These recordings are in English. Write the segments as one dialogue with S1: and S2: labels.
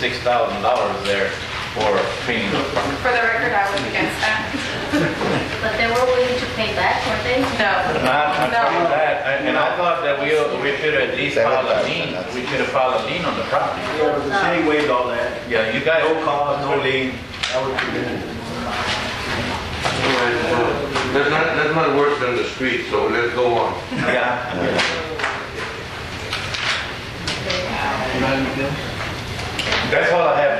S1: six thousand dollars there for cleaning up.
S2: For the record, I was against that.
S3: But they were willing to pay back, weren't they?
S2: No.
S1: And I, I told you
S2: No.
S1: that, I- and I thought that we, we should have at least filed a lien, we should have filed a lien on the property.
S4: Yeah, but the city waived all that.
S1: Yeah, you guys.
S4: No cause, no lien. That was prevented.
S5: That's not, that's not worse than the street, so let's go on.
S1: Yeah. That's all I have.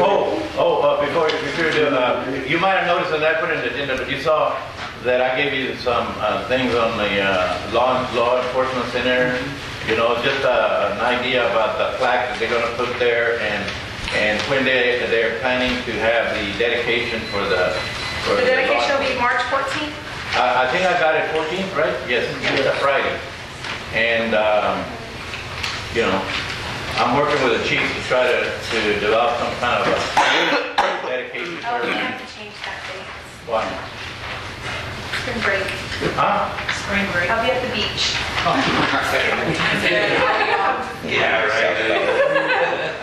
S1: Oh, oh, uh, before, before you do, uh, you might have noticed that I put in the agenda, but you saw that I gave you some, uh, things on the, uh, law, law enforcement center. You know, just, uh, an idea about the plaque that they're gonna put there and, and when they, they're planning to have the dedication for the, for
S2: The
S1: the. law-
S2: dedication will be March 14th.
S1: I I think I got it 14th, right? Yes,
S2: Mm-hmm.
S1: it's a Friday. And, um, you know, I'm working with the chief to try to, to develop some kind of a dedication
S2: Oh, we have
S1: program.
S2: to change that date.
S1: Why?
S2: Spring break.
S1: Huh?
S2: Spring break. I'll be at the beach.
S1: Yeah, right.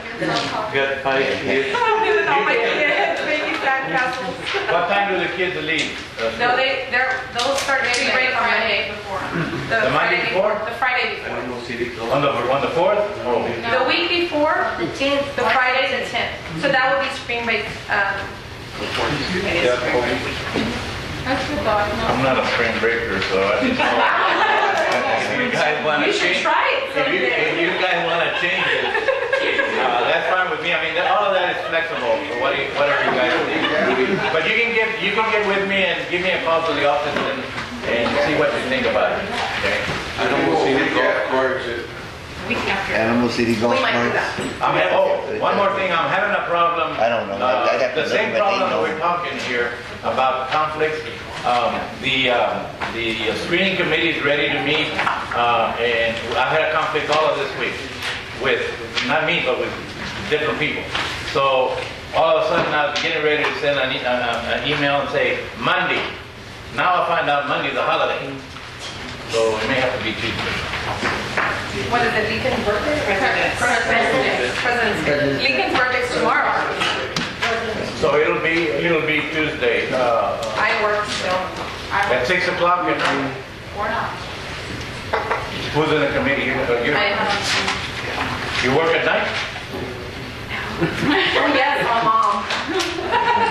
S1: Got five kids.
S2: I'm doing all my kids, baby sack castles.
S1: What time do the kids leave? Uh,
S2: No, they, they're, those start getting ready on Monday before.
S1: The Monday before?
S2: The Friday before.
S4: No city closed.
S1: On the, on the 4th? Oh,
S2: The week before,
S3: The tenth.
S2: the Friday, the 10th. So that would be spring break, um, it is spring break.
S3: That's the thought,
S1: I'm not a spring breaker, so I just. If you guys wanna
S2: You should
S1: change-
S2: try it
S1: If you, if
S2: someday.
S1: you guys want to change it, uh, that's fine with me. I mean, that- all of that is flexible, so what do you- whatever you guys think. But you can get, you can get with me and give me a call to the office and, and see what you think about it, okay?
S5: I don't want to see the golf carts.
S2: Week after.
S6: Animal City
S2: We
S6: Golf
S2: might do
S6: Course.
S2: that.
S1: I'm, ha- oh, one more thing, I'm having a problem.
S6: I don't know.
S1: Uh,
S6: I'd have to
S1: The
S6: look,
S1: same
S6: but they
S1: problem that
S6: know.
S1: we're talking here about conflicts, um, the, uh, the screening committee is ready to meet, uh, and I had a conflict all of this week with, not me, but with different people. So all of a sudden, I was getting ready to send an, e- uh, an email and say, Monday. Now I find out Monday's a holiday, so it may have to be Tuesday.
S2: What is it, Lincoln birthday? President's. President's. Day. Lincoln's birthday's tomorrow.
S1: So it'll be, it'll be Tuesday, uh,
S2: I work still. I
S1: At
S2: work
S1: six o'clock, you know,
S2: or not.
S1: who's in the committee? You, you,
S2: I um, am.
S1: you work at night?
S2: Oh, yes, my mom.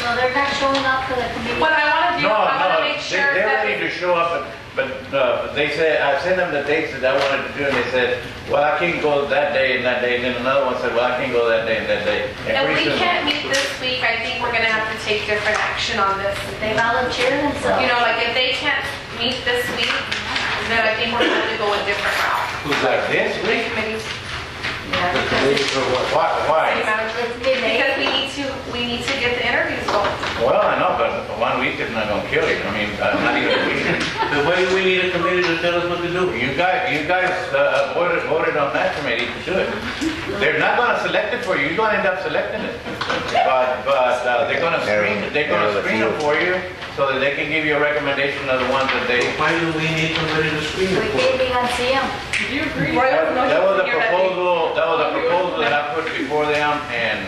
S3: no, they're not showing up for the committee.
S2: What I want to do,
S1: No,
S2: I
S1: no,
S2: want to make
S1: they-
S2: sure
S1: they're
S2: that.
S1: ready to show up, but, but, uh, they said, I sent them the dates that I wanted to do, and they said, well, I can't go that day and that day, and then another one said, well, I can't go that day and that day. And
S2: If
S1: pretty
S2: we
S1: soon-
S2: can't meet this week, I think we're gonna have to take different action on this.
S3: They volunteer themselves.
S2: You know, like if they can't meet this week, then I think we're gonna have to go a different route.
S1: Who's like this
S2: Three
S1: week?
S2: committees,
S1: Why,
S2: city
S1: why?
S2: manager.
S3: It's midnight.
S2: Because we need to, we need to get the interviews going.
S1: Well, I know, but one week is not gonna kill it, I mean, uh, not even a week.
S7: But why do we need a committee to tell us what to do?
S1: You guys, you guys uh, voted, voted on that committee to do it. They're not gonna select it for you, you're gonna end up selecting it. But, but uh, they're gonna screen, they're
S6: Narrow
S1: gonna
S6: the
S1: screen it
S6: field.
S1: for you so that they can give you a recommendation of the ones that they.
S7: Why do we need somebody to screen
S3: We
S7: it for?
S3: can't be on CM.
S1: That that was a proposal, that was a proposal that I put before them and,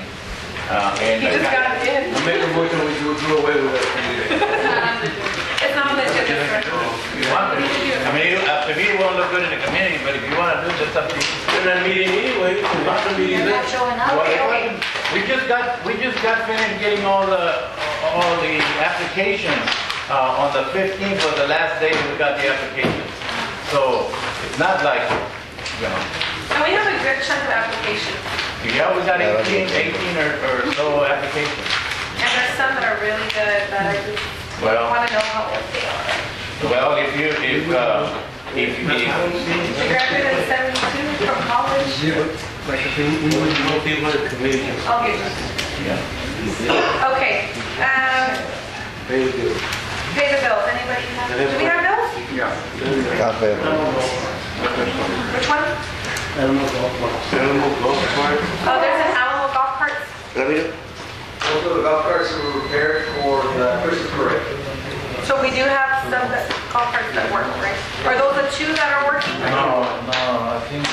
S1: uh, and.
S2: He just got it in.
S5: I make a motion we do do away with that committee.
S2: It's not much of a difference.
S1: If you want to, I mean, it- uh, to me, it won't look good in the community, but if you wanna do it, that's up to you.
S7: We're not meeting anyway, so not the meeting
S3: They're not
S7: there.
S3: showing up.
S1: Well, it wasn't- We just got, we just got finished getting all the, all the applications. Uh, on the 15th was the last day we got the applications. So it's not like, you know,
S2: And we have a good chunk of applications.
S1: yeah, we got
S6: Yeah, that'd be
S1: 18, 18 or, or so applications.
S2: And there's some that are really good, but I just
S1: Well-
S2: want to know how old they are.
S1: Well, if you, if, uh, if, if,
S2: She graduated in 72 from college.
S7: We would know people at committees.
S2: Okay.
S1: yeah.
S2: Okay. Um,
S5: Thank you.
S2: pay the bills. Anybody have, do we have bills?
S6: Cafe.
S2: Which one?
S4: Animal golf course.
S5: Animal golf cart.
S2: Oh, there's an Alamo golf cart.
S8: Also, the golf carts were prepared for the uh, Christmas parade.
S2: So we do have some that- golf carts that work, right? Are those the two that are working?
S1: No, no, I think